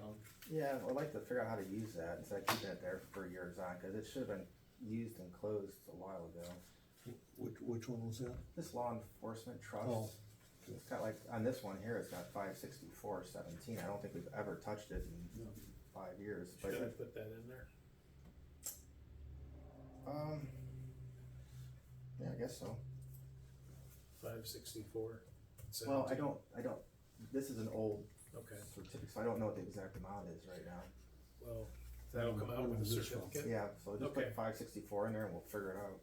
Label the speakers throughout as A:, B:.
A: Um,
B: Yeah, I'd like to figure out how to use that, instead of keeping it there for years on, cause it should've been used and closed a while ago.
A: Which, which one was that?
B: This law enforcement
A: Oh.
B: trust, it's got like, on this one here, it's got five sixty-four seventeen, I don't think we've ever touched it in five years, but,
C: Should I put that in there?
B: um. Yeah, I guess so,
C: Five sixty-four?
B: well, I don't, I don't, this is an old
C: Okay,
B: certificate, so I don't know what the exact amount is right now.
C: well,
A: That
C: that'll
A: one-
C: come
A: that
C: out with
A: one
C: a
A: is this one.
C: certificate?
B: Yeah, so just
C: Okay.
B: put five sixty-four in there and we'll figure it out.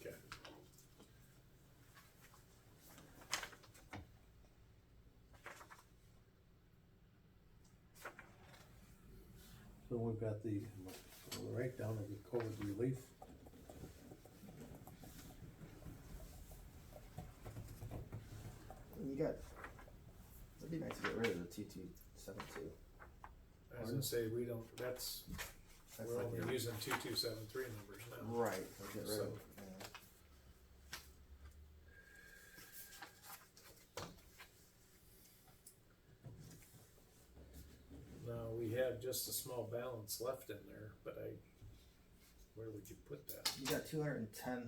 C: Okay.
A: So we've got the, right down of the COVID relief.
B: You got, it'd be nice to get rid of the T two seven two.
C: I was gonna say, we don't, that's,
B: That's
C: we're
B: like
C: only
B: the-
C: using two-two-seven-three numbers now.
B: Right, so get rid of,
C: So-
B: yeah.
C: No, we have just a small balance left in there, but I, where would you put that?
B: You got two hundred and ten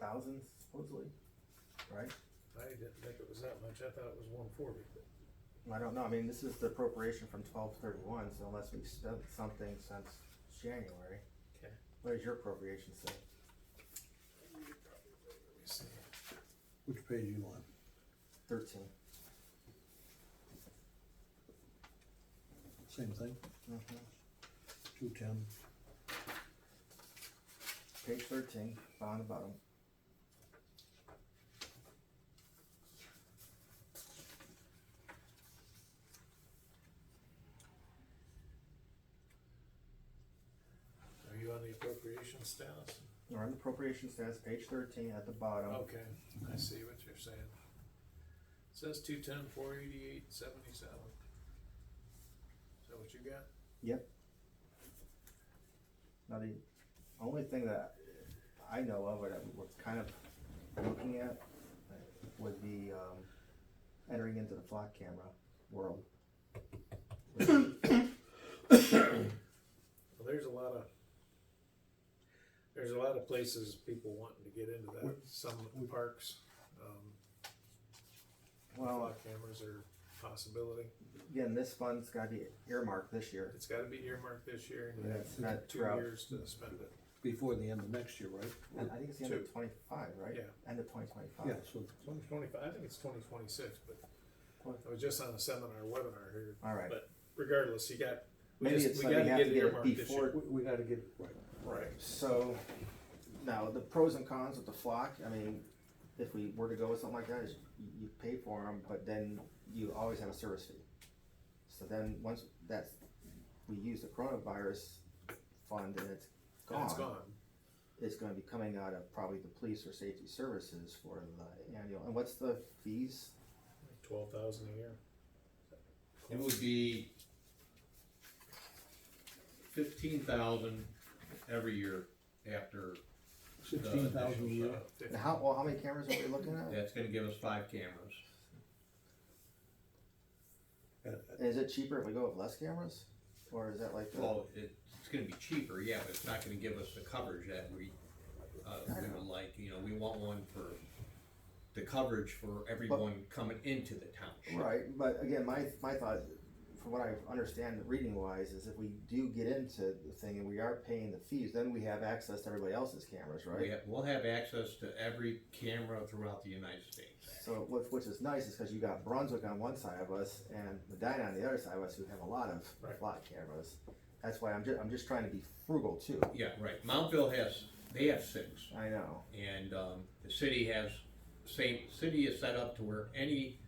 B: thousand supposedly, right?
C: I didn't think it was that much, I thought it was one forty, but
B: I don't know, I mean, this is the appropriation from twelve thirty-one, so unless we've spent something since January.
C: Okay.
B: What does your appropriation say?
C: let me see.
A: Which page you on?
B: Thirteen.
A: Same thing,
B: Mhm.
A: two ten.
B: Page thirteen, bottom, bottom.
C: Are you on the appropriation status?
B: Or in the appropriation status, page thirteen at the bottom.
C: Okay, I see what you're saying. Says two-ten, four-eighty-eight, seventy-seven. Is that what you got?
B: Yep. Now, the only thing that I know of, or that we're kind of looking at, uh, would be, um, entering into the flock camera world.
C: Well, there's a lot of, there's a lot of places people wanting to get into that, some parks, um,
B: Well,
C: flock cameras are a possibility.
B: again, this fund's gotta be earmarked this year.
C: It's gotta be earmarked this year, and you
B: Yeah,
C: have
B: it's not
C: two
B: throughout.
C: years to spend it.
A: Before the end of next year, right?
B: And I think it's the end of twenty-five, right?
C: Yeah.
B: End of twenty twenty-five.
A: Yeah, so,
C: Twenty twenty-five, I think it's twenty twenty-six, but I was just on a seminar webinar here,
B: All right.
C: but regardless, you got, we
B: Maybe
C: just,
B: it's
C: we
B: like we
C: gotta
B: have
C: get
B: to
C: it
B: get it
C: earmarked this year.
B: before
A: we, we gotta get it right.
C: Right.
B: So, now, the pros and cons with the flock, I mean, if we were to go with something like that, is you, you pay for them, but then you always have a service fee. So then, once that's, we use the coronavirus fund and it's
C: And it's gone.
B: gone, it's gonna be coming out of probably the police or safety services for the annual, and what's the fees?
C: Twelve thousand a year.
D: It would be fifteen thousand every year after,
A: Sixteen thousand a year,
B: And How, well, how many cameras are we looking at?
D: that's gonna give us five cameras.
B: And Is it cheaper if we go with less cameras? Or is that like, the-
D: Well, it, it's gonna be cheaper, yeah, but it's not gonna give us the coverage that we, uh, we would like, you know, we want one for the coverage for everyone coming into the township.
B: Right, but again, my, my thought, from what I understand reading wise, is if we do get into the thing and we are paying the fees, then we have access to everybody else's cameras,
D: We
B: right?
D: have, we'll have access to every camera throughout the United States.
B: So, which, which is nice, is cause you got Brunswick on one side of us and Medina on the other side of us who have a lot of
C: Right.
B: lot cameras. That's why I'm ju- I'm just trying to be frugal too,
D: Yeah, right, Mountville has, they have six.
B: I know,
D: And um, the city has, same, city is set up to where any,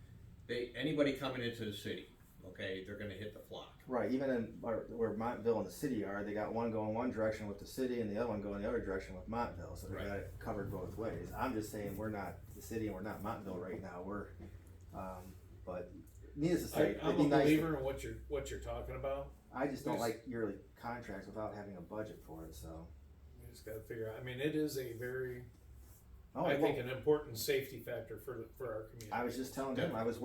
D: they, anybody coming into the city, okay, they're gonna hit the flock.
B: right, even in, where where Montville and the city are, they got one going one direction with the city and the other one going the other direction with Montville, so they
D: Right.
B: got it covered both ways. I'm just saying, we're not the city and we're not Montville right now, we're, um, but needless to
C: I,
B: say,
C: I'm
B: it'd
C: a
B: be nice.
C: believer in what you're, what you're talking about,
B: I just don't
C: There's-
B: like yearly contracts without having a budget for it, so.
C: we just gotta figure out, I mean, it is a very,
B: Oh,
C: I
B: well,
C: think, an important safety factor for, the- for our community.
B: I was just telling him, I was